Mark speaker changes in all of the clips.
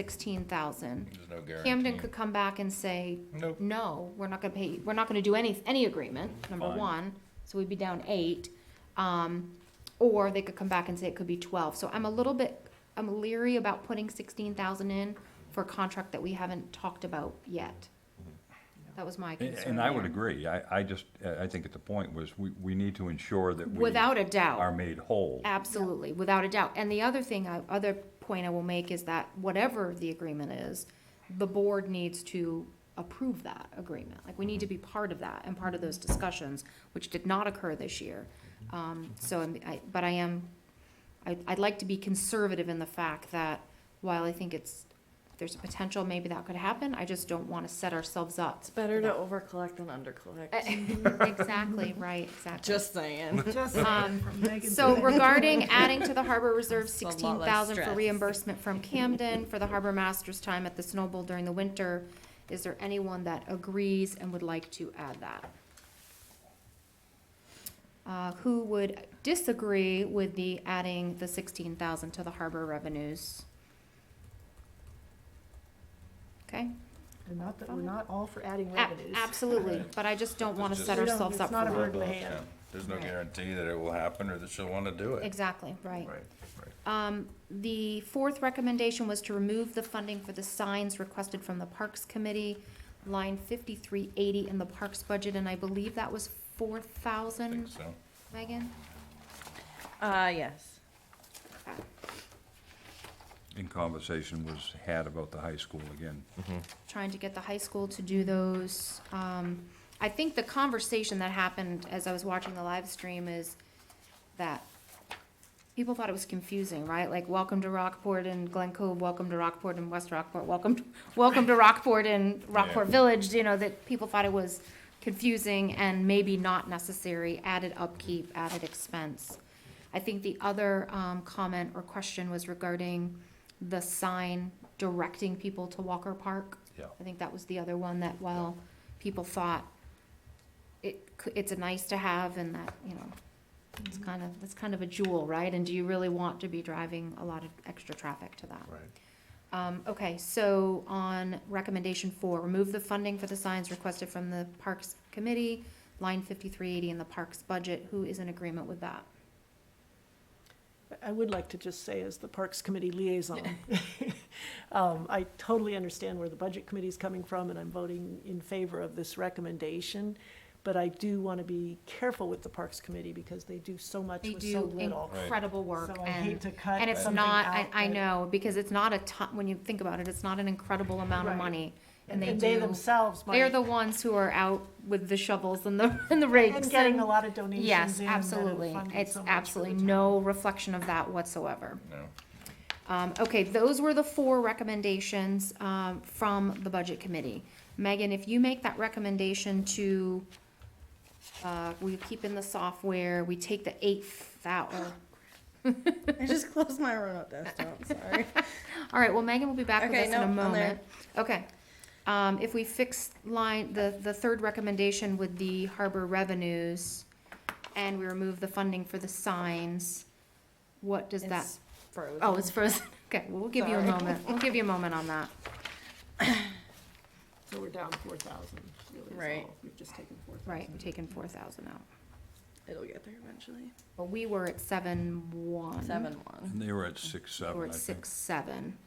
Speaker 1: sixteen thousand.
Speaker 2: There's no guarantee.
Speaker 1: Camden could come back and say,
Speaker 2: Nope.
Speaker 1: no, we're not gonna pay, we're not gonna do any, any agreement, number
Speaker 2: Fine.
Speaker 1: one, so we'd be down eight. Um, or they could come back and say it could be twelve, so I'm a little bit, I'm leery about putting sixteen thousand in for a contract that we haven't talked about yet. That was my
Speaker 3: And-
Speaker 1: concern.
Speaker 3: And I would
Speaker 1: there.
Speaker 3: agree. I, I just, I think at the point was, we, we need to ensure that we.
Speaker 1: Without a doubt.
Speaker 3: Are made whole.
Speaker 1: Absolutely, without a doubt. And the other thing, I- other point I will make is that whatever the agreement is, the board needs to approve that agreement. Like, we need to be part of that and part of those discussions, which did not occur this year. Um, so, I'm- I, but I am, I, I'd like to be conservative in the fact that while I think it's, there's a potential maybe that could happen, I just don't wanna set ourselves up.
Speaker 4: It's better to overcollect than undercollect.
Speaker 1: Exactly, right, exactly.
Speaker 4: Just saying.
Speaker 5: Just
Speaker 1: Um,
Speaker 5: from Megan
Speaker 1: So regarding adding to the harbor reserve
Speaker 4: It's a lot less
Speaker 1: sixteen thousand for
Speaker 4: stress.
Speaker 1: reimbursement from Camden for the harbor master's time at the Snow Bowl during the winter, is there anyone that agrees and would like to add that? Uh, who would disagree with the adding the sixteen thousand to the harbor revenues? Okay,
Speaker 5: We're not, that- we're not all for adding
Speaker 1: ab-
Speaker 5: revenues.
Speaker 1: absolutely, but I just don't wanna set
Speaker 5: We don't-
Speaker 1: ourselves
Speaker 5: it's
Speaker 1: up
Speaker 5: not a
Speaker 1: for,
Speaker 5: bird in the hand.
Speaker 2: Yeah. There's no
Speaker 1: Right.
Speaker 2: guarantee that it will happen or that she'll want to do it.
Speaker 1: exactly, right.
Speaker 2: Right, right.
Speaker 1: Um, the fourth recommendation was to remove the funding for the signs requested from the Parks Committee, line fifty-three eighty in the Parks budget, and I believe that was four
Speaker 2: I think
Speaker 1: thousand,
Speaker 2: so.
Speaker 1: Megan? Uh,
Speaker 4: Uh, yes.
Speaker 3: In conversation was had about the high school again.
Speaker 1: Trying to get the high school to do those. Um, I think the conversation that happened as I was watching the live stream is that people thought it was confusing, right? Like, welcome to Rockport and Glen Cove, welcome to Rockport and West Rockport, welcome, to- welcome to Rockport and Rockport Village, you know, that people thought it was confusing and maybe not necessary, added upkeep, added expense. I think the other, um, comment or question was regarding the sign directing people to Walker Park.
Speaker 2: Yeah.
Speaker 1: I think that was the other one that, well, people thought it, c- it's a nice to have and that, you know, it's
Speaker 5: Mm-hmm.
Speaker 1: kind of, it's kind of a jewel, right? And do you really want to be driving a lot of extra traffic to that?
Speaker 2: Right.
Speaker 1: Um, okay, so on recommendation four, remove the funding for the signs requested from the Parks Committee, line fifty-three eighty in the Parks budget. Who is in agreement with that?
Speaker 5: I would like to just say, as the Parks Committee liaison, um, I totally understand where the Budget Committee is coming from, and I'm voting in favor of this recommendation. But I do want to be careful with the Parks Committee, because they do so much
Speaker 1: They
Speaker 5: with so
Speaker 1: do
Speaker 5: little.
Speaker 1: incredible work
Speaker 5: So I hate
Speaker 1: and,
Speaker 5: to cut
Speaker 1: and it's
Speaker 5: something
Speaker 1: not, I,
Speaker 5: out,
Speaker 1: I
Speaker 5: but-
Speaker 1: know, because it's not a ton, when you think about it, it's not an incredible amount of
Speaker 5: Right.
Speaker 1: money.
Speaker 5: And
Speaker 1: they
Speaker 5: and they
Speaker 1: do-
Speaker 5: themselves
Speaker 1: They're
Speaker 5: might,
Speaker 1: the ones who are out with the shovels and the, and the rakes.
Speaker 5: and getting
Speaker 1: and-
Speaker 5: a lot of donations in.
Speaker 1: Yes,
Speaker 5: that have
Speaker 1: absolutely.
Speaker 5: funded
Speaker 1: It's
Speaker 5: so much for the
Speaker 1: absolutely
Speaker 5: town.
Speaker 1: no reflection of that whatsoever.
Speaker 2: No.
Speaker 1: Um, okay, those were the four recommendations, um, from the budget committee. Megan, if you make that recommendation to, uh, we keep in the software, we take the eight thou, or-
Speaker 4: I just closed my remote desktop, sorry.
Speaker 1: all right, well, Megan will be back with
Speaker 4: Okay,
Speaker 1: us in a
Speaker 4: no, I'm there.
Speaker 1: moment. Okay, um, if we fix line, the, the third recommendation with the harbor revenues, and we remove the funding for the signs, what does that?
Speaker 4: It's frozen.
Speaker 1: Oh, it's frozen. Okay, well, we'll give you a
Speaker 4: Sorry.
Speaker 1: moment. We'll give you a moment on that.
Speaker 5: So we're down four thousand, really, is
Speaker 4: Right.
Speaker 5: all. We've just taken four thousand.
Speaker 1: Right, we've taken four thousand out.
Speaker 4: It'll get there eventually.
Speaker 1: But we were at seven one.
Speaker 4: Seven one.
Speaker 3: And they were at six, seven,
Speaker 1: We're
Speaker 3: I
Speaker 1: at
Speaker 3: think.
Speaker 1: six, seven,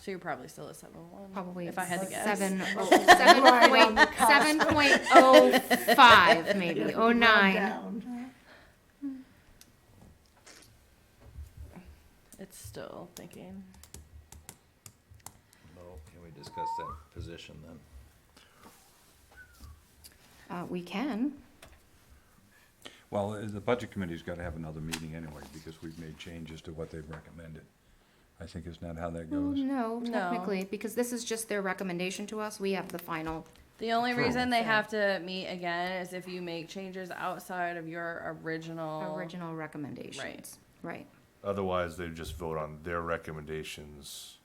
Speaker 4: So you're probably still at seven one.
Speaker 1: probably.
Speaker 4: If I had to guess.
Speaker 1: Seven, oh, seven point, seven point oh five, maybe, oh nine.
Speaker 4: It's still thinking.
Speaker 2: Well, Can we discuss that position then?
Speaker 1: Uh, we can,
Speaker 3: Well, uh, the budget committee's gotta have another meeting anyway, because we've made changes to what they've recommended. I think isn't that how that
Speaker 1: well,
Speaker 3: goes?
Speaker 1: Mm, no,
Speaker 4: No.
Speaker 1: technically, because this is just their recommendation to us. We have the final.
Speaker 4: The only
Speaker 3: True.
Speaker 4: reason they have to meet again is if you make changes outside of your original.
Speaker 1: Original recommendations. Right.
Speaker 6: Otherwise, they just vote on their recommendations,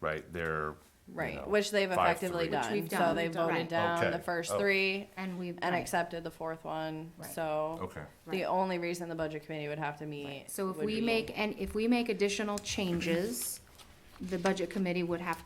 Speaker 6: right? Their
Speaker 4: Right,
Speaker 6: you know,
Speaker 4: which they've
Speaker 6: five,
Speaker 4: effectively
Speaker 6: three.
Speaker 1: Which
Speaker 4: done.
Speaker 1: we've
Speaker 4: So
Speaker 1: done.
Speaker 4: they
Speaker 1: We've done.
Speaker 4: voted
Speaker 1: Right.
Speaker 4: down the
Speaker 6: Okay.
Speaker 4: first
Speaker 6: Oh.
Speaker 4: three
Speaker 1: And we've.
Speaker 4: and
Speaker 1: right.
Speaker 4: accepted the fourth one.
Speaker 1: Right.
Speaker 4: So
Speaker 6: Okay.
Speaker 1: Right.
Speaker 4: the only reason the budget committee would have to meet.
Speaker 1: So if
Speaker 4: would
Speaker 1: we
Speaker 4: be-
Speaker 1: make, and if we make additional changes, the budget committee would have